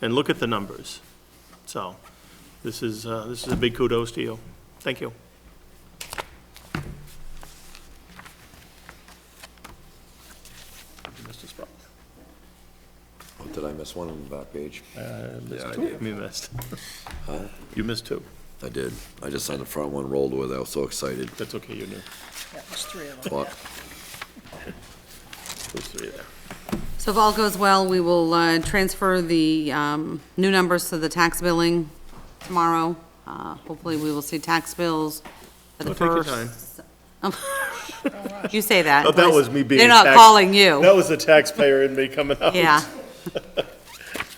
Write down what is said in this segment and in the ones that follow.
and look at the numbers. So this is, uh, this is a big kudos to you. Thank you. Mr. Sproul. Oh, Did I miss one on the back page? Uh, Yeah, missed I two. Uh, did. You missed. You missed two. I did. I just signed the front one, rolled with it. I was so excited. That's okay, you knew. Yeah, there's three of them. Clock. Those three there. So if all goes well, we will uh, transfer the um, new numbers to the tax billing tomorrow. Uh, Hopefully, we will see tax bills for the Don't take your first. um, time. You say that. Oh, that was me being. They're not tax- calling you. That was the taxpayer in me coming out. Oh. Yeah.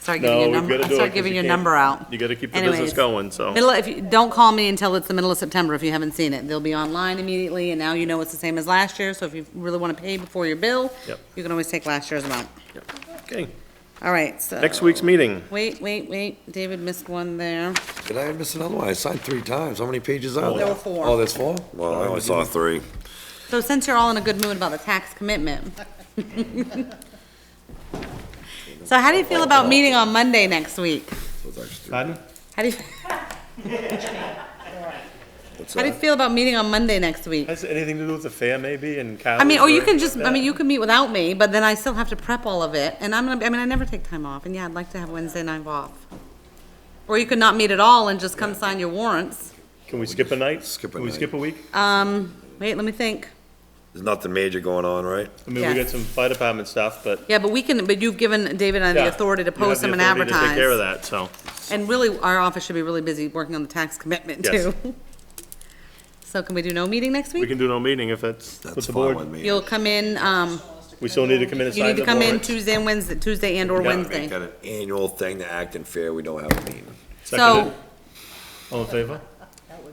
Start giving No, your we've number, gotta do it start 'cause giving you your can't- number out. You gotta keep the business Anyways, going, so. Middle, if you, don't call me until it's the middle of September if you haven't seen it. They'll be online immediately, and now you know it's the same as last year, so if you really want to pay before your bill, Yep. you can always take last year's amount. Okay, All right, so. next week's meeting. Wait, wait, wait, David missed one there. Did I miss another one? I signed three times. How many pages are there? There were four. Oh, there's four? Well, I only saw three. So since you're all in a good mood about the tax commitment. So how do you feel about meeting on Monday next week? So it's actually- Pardon? How do you, what's how do you that? feel about meeting on Monday next week? Has anything to do with the fair maybe and cows? I mean, or you anything can just, like I mean, that? you can meet without me, but then I still have to prep all of it, and I'm gonna, I mean, I never take time off, and yeah, I'd like to have Wednesday night off. Or you could not meet at all and just come sign your warrants. Can we skip a night? Skip a Can we night. skip a week? Um, wait, let me think. There's nothing major going on, right? I mean, we Yeah. got some fire department stuff, but. Yeah, but we can, but you've given David and I yeah, the authority to you have post the them and authority to advertise. Take care of that, so. And really, our office should be really busy working on the tax commitment Yes. too. So can we do no meeting next We week? can do no meeting if that's with That's the fine with board. me. You'll come in, um, We still need to come in and you sign need to the come in warrants. Tuesday and Wednesday, Tuesday and or Yeah. Wednesday. Got an annual thing to act and fair. We don't have a meeting. So Seconded. All in favor?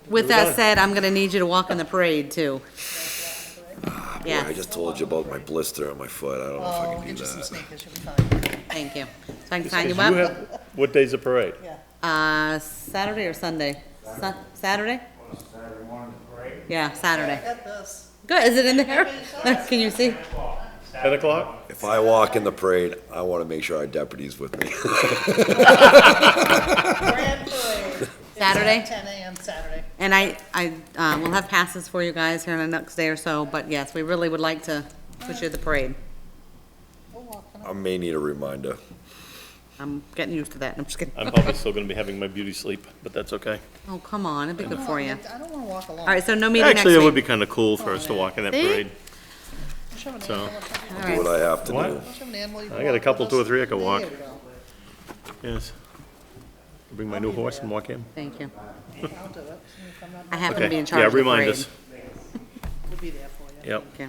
with done. Ah, that said, I'm gonna need you to walk in the parade too. Yeah, I Yes, just told you about my blister on my foot. I don't know if I Oh, can get do you some that. sneakers, you'll be fine. thank you. So I can sign 'Cause you you up, have- What day's the parade? uh, Saturday or Sunday? Sa- Saturday? Saturday morning parade. Yeah, I Saturday. got this. Good, is it in there? Can you see? Ten o'clock? If I walk in the parade, I want to make sure our deputy's with me. Grand parade. It's at Saturday? Ten AM Saturday. And I, I, uh, will have passes for you guys here in the next day or so, but yes, we really would like to put you at the parade. We'll walk them. I may need a reminder. I'm getting used to that, I'm just kidding. I'm probably still gonna be having my beauty sleep, but that's okay. Oh, come on, it'd be good for you. I don't wanna walk alone. All right, so no meeting next Actually, it would week. be kinda cool for us to walk in that See? parade. Don't you have an so- animal up there? All Do what right. I have to What? do. Don't you have an animal you can I got a walk couple, with two or us? three I could There walk. you go. Yes. Bring my new horse and walk in. Thank you. I'll do it. If I'm not- I happen Okay. to be in charge Yeah, of the remind parade. us. We'll be there for you. Yep. Okay.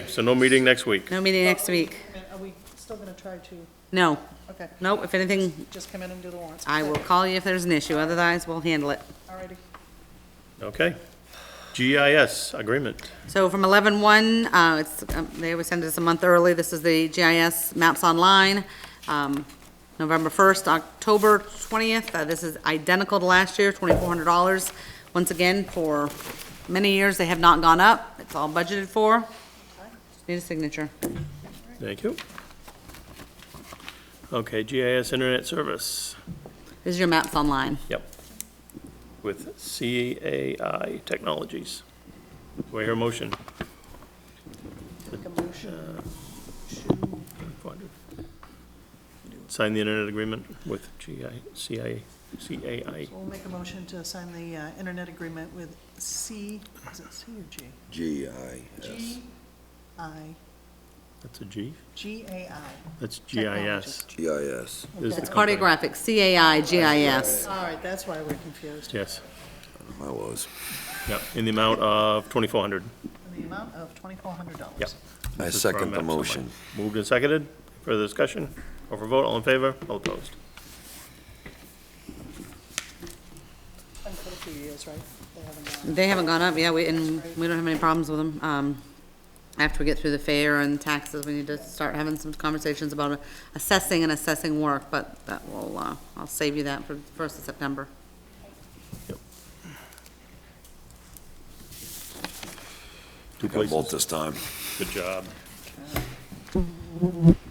Okay, so no meeting next week. No meeting next week. Are we still gonna try to, No, okay, no, if anything, just come in and do the warrants? I will call you if there's an issue, otherwise we'll handle it. All righty. Okay. GIS agreement. So from eleven one, uh, it's, um, they always send us a month early, this is the GIS maps online, um, November first, October twentieth, uh, this is identical to last year, twenty-four hundred dollars. Once again, for many years, they have not gone up, it's all budgeted for. Just Need a signature. Thank you. Okay, GIS internet service. This is your maps online. Yep. With CAI Technologies. Do I hear a motion? Make a motion to Uh, Sign the internet agreement with GI, CI, CAI. We'll make a motion to sign the uh, internet agreement with C, is it C or G? G I S. G I, That's a G? G A I. That's GIS. G I S. This is the It's company. cartographic, CAI, GIS. All right, that's why we're confused. Yes, I was. yep, in the amount of 2,400. In the amount of twenty-four hundred dollars. Yep. I This is for our second the maps online. motion. Moved and seconded. Further discussion? Call for vote. All in favor? All opposed? Been for a few years, right? They haven't, uh, They haven't gone up, yeah, we, and we don't have any problems with them. Um, after we get through the fair and taxes, we need to start having some conversations about assessing and assessing work, but that will, uh, I'll save you that for the first of September. Two Got both places. this time. Good job.